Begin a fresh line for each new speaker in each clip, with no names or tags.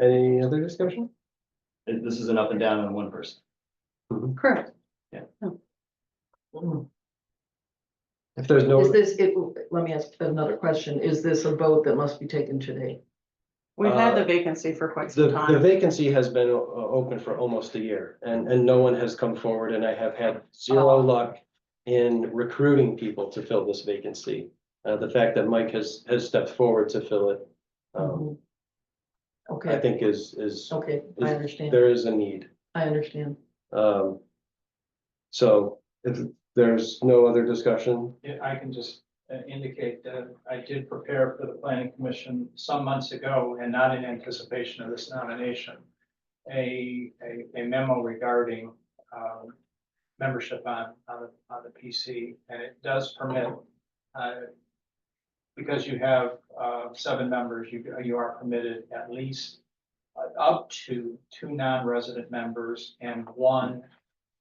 Any other discussion?
It- This is an up and down on one person.
Correct.
If there's
Is
no,
this, it, let me ask another question. Is this a vote that must be taken today?
We've had
Uh,
the vacancy for quite
the,
some
the
time.
vacancy has been o- o- open for almost a year and, and no one has come forward and I have had zero
Oh.
luck in recruiting people to fill this vacancy. Uh, the fact that Mike has, has stepped forward to fill it, um, Mm-hmm. I
Mm-hmm. Okay,
think is, is,
okay, I understand,
there is a need.
I understand.
Um, so if there's no other discussion,
Yeah, I can just uh, indicate that I did prepare for the planning commission some months ago and not in anticipation of this nomination. A, a, a memo regarding, um, membership on, on, the- on the PC, and it does permit, uh, because you have, uh, seven members, you, you are permitted at least uh, up to two non-resident members and one,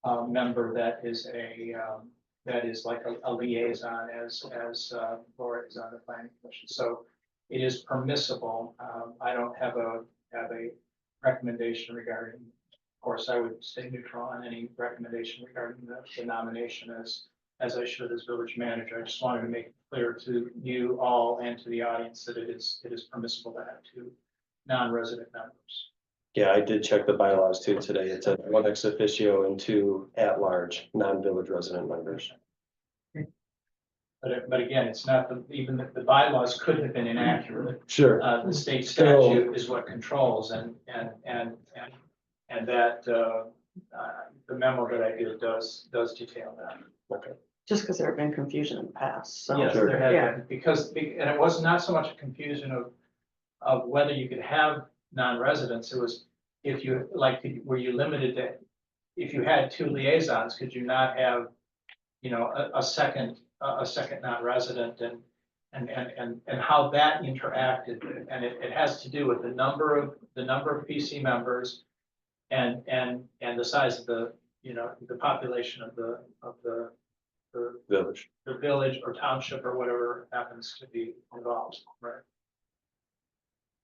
uh, member that is a, um, that is like a- a liaison as, as uh, Laura is on the planning commission. So it is permissible. Um, I don't have a, have a recommendation regarding, of course, I would stay neutral on any recommendation regarding the the nomination as, as I should as village manager. I just wanted to make it clear to you all and to the audience that it is, it is permissible to have two non-resident members.
yeah, I did check the bylaws too today. It said one ex officio and two at-large, non-village resident members.
But, it- but again, it's not, the- even the the bylaws could have been inaccurate.
Sure,
Uh, the state
Still-
statute is what controls and, and, and, and, and that, uh, uh, the memo that I did does, does detail that.
Just because there have been confusion in the past, so.
Yes,
Sure.
there had
Yeah.
been, because, be- and it was not so much a confusion of, of whether you could have non-residents, it was if you, like, were you limited to, if you had two liaisons, could you not have, you know, a, a second, a, a second non-resident and, and, and, and, and how that interacted, and it, it has to do with the number of, the number of PC members and, and, and the size of the, you know, the population of the, of the, the
village.
the village or township or whatever happens to be involved, right?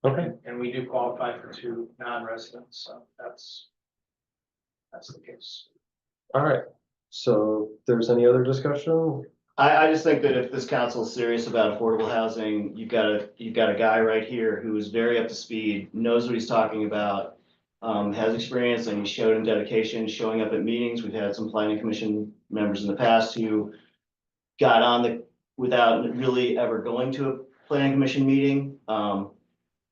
Okay,
And we do qualify for two non-residents, so that's, that's the case.
all right. So if there's any other discussion?
I, I just think that if this council is serious about affordable housing, you've got a, you've got a guy right here who is very up to speed, knows what he's talking about. Um, has experience and he showed in dedication, showing up at meetings. We've had some planning commission members in the past who got on the, without really ever going to a planning commission meeting. Um,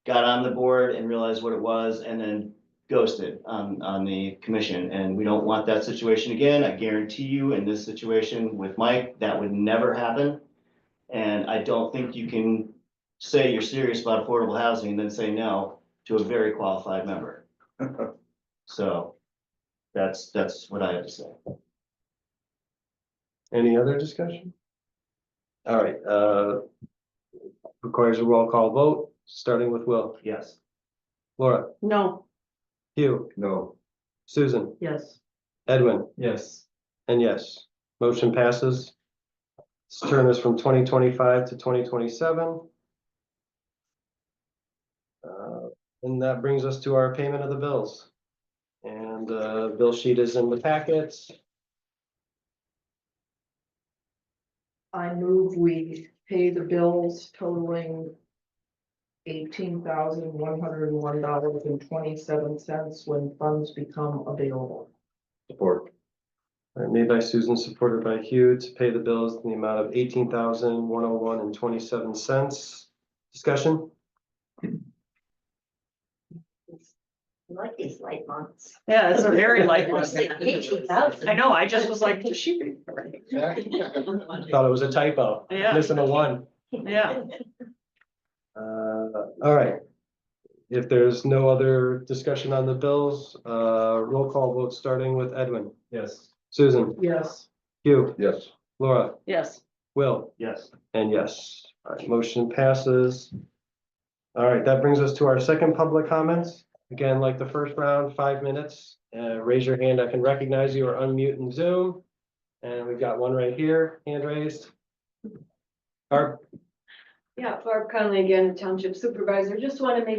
got on the board and realized what it was and then ghosted on, on the commission, and we don't want that situation again. I guarantee you, in this situation with Mike, that would never happen. And I don't think you can say you're serious about affordable housing and then say no to a very qualified member. So that's, that's what I have to say.
Any other discussion? All right, uh, requires a roll call vote, starting with Will.
Yes.
Laura,
No,
Hugh,
No.
Susan,
Yes,
Edwin,
Yes.
and yes, motion passes. This turn is from twenty twenty-five to twenty twenty-seven. Uh, and that brings us to our payment of the bills. And, uh, bill sheet is in the packets.
I move we pay the bills totaling eighteen thousand one hundred and one dollars and twenty-seven cents when funds become available.
Support. made by Susan, supported by Hugh to pay the bills in the amount of eighteen thousand, one oh one and twenty-seven cents. Discussion?
Like these light months.
yeah, it's a very light
I
one.
was like, $18,000.
I know, I just was like, does she read? already?
Thought it was a typo.
Yeah.
Listen to one.
Yeah,
Uh, all right. If there's no other discussion on the bills, uh, roll call vote starting with Edwin.
Yes.
Susan,
Yes,
Hugh,
Yes,
Laura,
yes,
Will.
Yes.
And yes, all right, motion passes. All right, that brings us to our second public comments. Again, like the first round, five minutes. Uh, raise your hand. I can recognize you or unmute in Zoom. And we've got one right here, hand raised. Barb?
Yeah, Barb Conley again, Township Supervisor. Just want to make